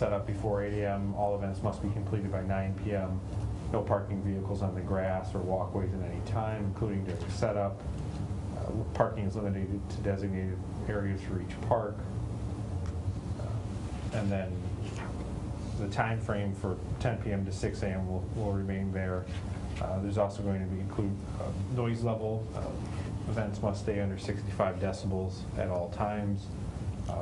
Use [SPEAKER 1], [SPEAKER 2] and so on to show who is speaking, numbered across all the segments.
[SPEAKER 1] set up before 8 AM. All events must be completed by 9 PM. No parking vehicles on the grass or walkways at any time, including during setup. Uh, Parking is limited to designated areas for each park. Um, And then the time frame for 10 PM to 6 AM will, will remain there. Uh, There's also going to be include uh, noise level. Uh, Events must stay under 65 decibels at all times. Uh,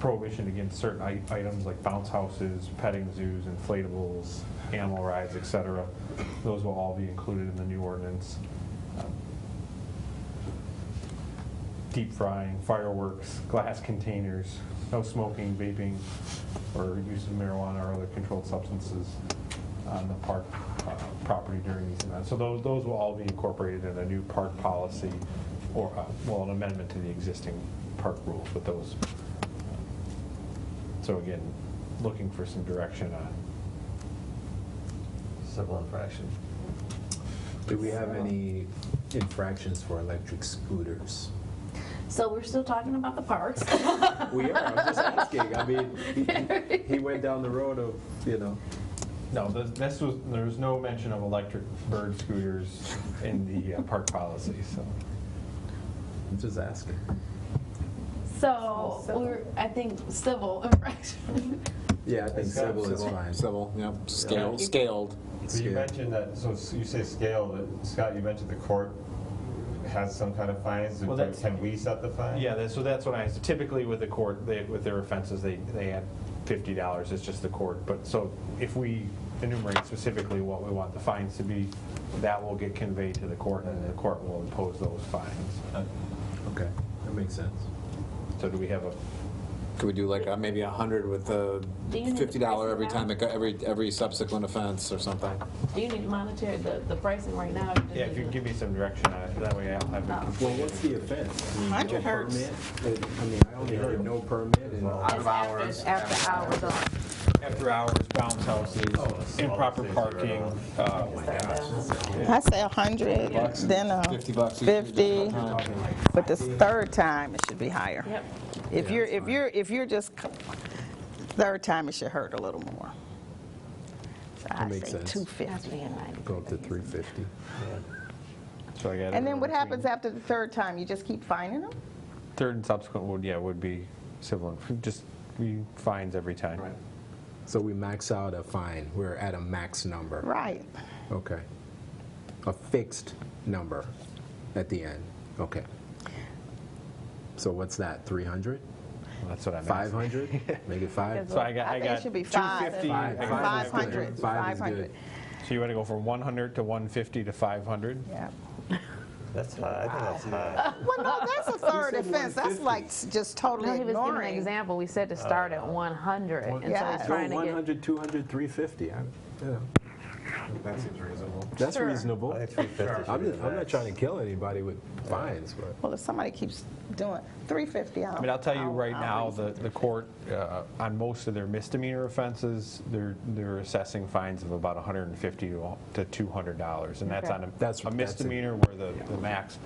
[SPEAKER 1] Prohibition against certain i- items like bounce houses, petting zoos, inflatables, animal rides, et cetera. Those will all be included in the new ordinance. deep frying, fireworks, glass containers, no smoking, vaping, or use of marijuana or other controlled substances on the park uh, property during these events. So those, those will all be incorporated in a new park policy or, uh, well, an amendment to the existing park rules with those. So again, looking for some direction on,
[SPEAKER 2] Civil infraction.
[SPEAKER 3] Do we have any infractions for electric scooters?
[SPEAKER 4] So we're still talking about the parks.
[SPEAKER 3] We are, I'm just asking, I mean, he- he went down the road of, you know,
[SPEAKER 1] no, this- this was, there was no mention of electric bird scooters in the uh, park policy, so.
[SPEAKER 3] I'm just asking.
[SPEAKER 4] So we're, I think civil infraction.
[SPEAKER 3] Yeah, I think
[SPEAKER 5] It's got
[SPEAKER 3] civil is fine.
[SPEAKER 6] Civil, yep,
[SPEAKER 5] Yeah.
[SPEAKER 6] scaled, scaled.
[SPEAKER 5] So you
[SPEAKER 3] Yeah.
[SPEAKER 5] mentioned that, so s- you say scale, that- Scott, you mentioned the court has some kind of fines.
[SPEAKER 1] Well, that's-
[SPEAKER 5] Can we set the fine?
[SPEAKER 1] Yeah, that- so that's what I, typically with the court, they- with their offenses, they, they add fifty dollars, it's just the court. But so if we enumerate specifically what we want the fines to be, that will get conveyed to the court and the court will impose those fines.
[SPEAKER 3] Okay, that makes sense.
[SPEAKER 1] So do we have a,
[SPEAKER 6] Could we do like uh, maybe a hundred with a
[SPEAKER 4] Do you need to
[SPEAKER 6] fifty dollar every
[SPEAKER 4] price it
[SPEAKER 6] time, it go- every, every subsequent offense or something?
[SPEAKER 4] Do you need to monitor the, the pricing right now? or just
[SPEAKER 1] yeah, if
[SPEAKER 4] need
[SPEAKER 1] you can
[SPEAKER 4] to-
[SPEAKER 1] give me some direction on it, that way I'll have it
[SPEAKER 4] Oh.
[SPEAKER 3] Well,
[SPEAKER 1] completed.
[SPEAKER 3] what's the offense? I mean,
[SPEAKER 7] 100
[SPEAKER 3] no
[SPEAKER 7] hertz.
[SPEAKER 3] permit? I mean, I only heard no permit and
[SPEAKER 4] It's after- After hours. of-
[SPEAKER 1] After hours, bounce houses, improper parking, uh,
[SPEAKER 7] I say 100, then uh,
[SPEAKER 6] Fifty bucks each.
[SPEAKER 7] 50, but this third time, it should be higher.
[SPEAKER 4] Yep.
[SPEAKER 7] If you're, if you're, if you're just, c- third time, it should hurt a little more. So I
[SPEAKER 3] makes
[SPEAKER 7] say
[SPEAKER 3] sense.
[SPEAKER 4] That's
[SPEAKER 7] 250.
[SPEAKER 4] being ninety.
[SPEAKER 3] go up to 350.
[SPEAKER 1] so I got.
[SPEAKER 7] And then what happens after the third time? You just keep finding them?
[SPEAKER 1] Third and subsequent would, yeah, would be civil, just we fines every time.
[SPEAKER 3] So we max out a fine, we're at a max number.
[SPEAKER 7] Right.
[SPEAKER 3] Okay. A fixed number at the end, okay. So what's that, 300?
[SPEAKER 1] That's what I'm asking.
[SPEAKER 3] 500? Make it five?
[SPEAKER 1] So I got, I
[SPEAKER 7] think
[SPEAKER 1] got
[SPEAKER 7] it should be five.
[SPEAKER 1] 250.
[SPEAKER 3] Five.
[SPEAKER 1] I got
[SPEAKER 3] Five.
[SPEAKER 7] 500,
[SPEAKER 3] Five is good.
[SPEAKER 7] 500.
[SPEAKER 1] So you want to go from 100 to 150 to 500?
[SPEAKER 7] Yeah.
[SPEAKER 2] That's high, I think that's high.
[SPEAKER 7] Uh, Well, no, that's a third offense. That's like s- just
[SPEAKER 4] No,
[SPEAKER 7] totally
[SPEAKER 4] he was giving an
[SPEAKER 7] ignoring.
[SPEAKER 4] example, we said to start at one hundred, and so
[SPEAKER 7] Yeah.
[SPEAKER 4] he's
[SPEAKER 7] No,
[SPEAKER 4] trying to get.
[SPEAKER 3] 100, 200, 350. I'm- yeah,
[SPEAKER 5] That seems reasonable.
[SPEAKER 3] That's
[SPEAKER 7] Sure.
[SPEAKER 3] reasonable.
[SPEAKER 2] I think
[SPEAKER 3] I'm
[SPEAKER 2] 350 should be the
[SPEAKER 3] not- I'm not
[SPEAKER 2] max.
[SPEAKER 3] trying to kill anybody with fines, but.
[SPEAKER 7] Well, if somebody keeps doing, 350, I'll.
[SPEAKER 1] I mean, I'll tell you
[SPEAKER 7] I'll-
[SPEAKER 1] right
[SPEAKER 7] I'll
[SPEAKER 1] now,
[SPEAKER 7] reason.
[SPEAKER 1] the, the court, uh, on most of their misdemeanor offenses, they're, they're assessing fines of about 150 to to $200. And that's
[SPEAKER 4] Okay.
[SPEAKER 1] on
[SPEAKER 3] That's-
[SPEAKER 1] a- a
[SPEAKER 3] that's it.
[SPEAKER 1] misdemeanor where the, the max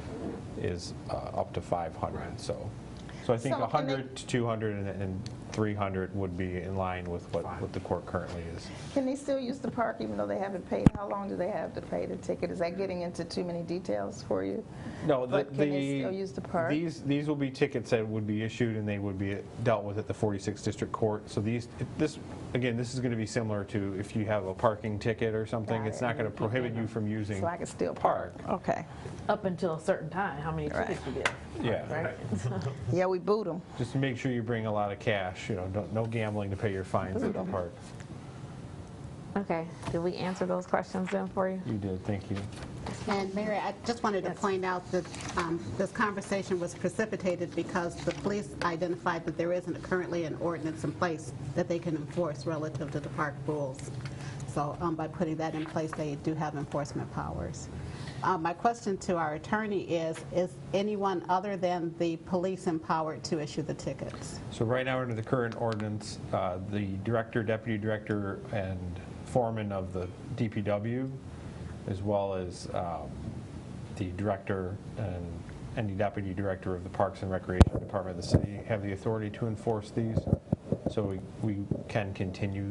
[SPEAKER 1] is uh, up to 500, so. So I think
[SPEAKER 7] So can they-
[SPEAKER 1] 100 to 200 and- and 300 would be in line with what, what the court currently is.
[SPEAKER 7] Can they still use the park even though they haven't paid? How long do they have to pay the ticket? Is that getting into too many details for you?
[SPEAKER 1] No, the,
[SPEAKER 7] But can they still
[SPEAKER 1] the-
[SPEAKER 7] use the park?
[SPEAKER 1] These, these will be tickets that would be issued and they would be dealt with at the 46th District Court. So these, this, again, this is going to be similar to if you have a parking ticket or something.
[SPEAKER 7] Got
[SPEAKER 1] It's
[SPEAKER 7] it.
[SPEAKER 1] not going to prohibit you from using.
[SPEAKER 7] So I can still park? Okay.
[SPEAKER 4] Up until a certain time, how many tickets you get,
[SPEAKER 1] Yeah,
[SPEAKER 4] right?
[SPEAKER 7] Yeah, we boot them.
[SPEAKER 1] just make sure you bring a lot of cash, you know, don't- no gambling to pay your fines at the park.
[SPEAKER 4] Okay, did we answer those questions then for you?
[SPEAKER 1] You did, thank you.
[SPEAKER 8] And Mary, I just wanted to point out that um, this conversation was precipitated because the police identified that there isn't currently an ordinance in place that they can enforce relative to the park rules. So um, by putting that in place, they do have enforcement powers. Uh, My question to our attorney is, is anyone other than the police empowered to issue the tickets?
[SPEAKER 1] So right now, under the current ordinance, uh, the director, deputy director, and foreman of the DPW, as well as um, the director and and the deputy director of the Parks and Recreation Department of the city, have the authority to enforce these. So we we can continue